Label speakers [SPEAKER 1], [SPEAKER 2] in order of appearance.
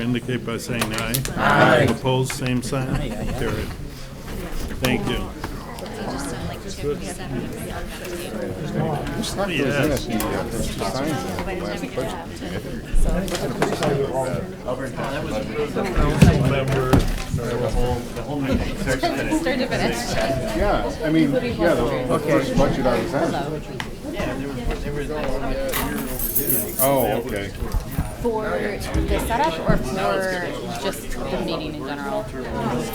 [SPEAKER 1] indicate by saying aye. Aye. Opposed, same sign. Carried. Thank you. Yes. Remember, the whole, the whole meeting.
[SPEAKER 2] Yeah, I mean, yeah, the first budget I was at. Oh, okay.
[SPEAKER 3] For the setup or for just the meeting in general?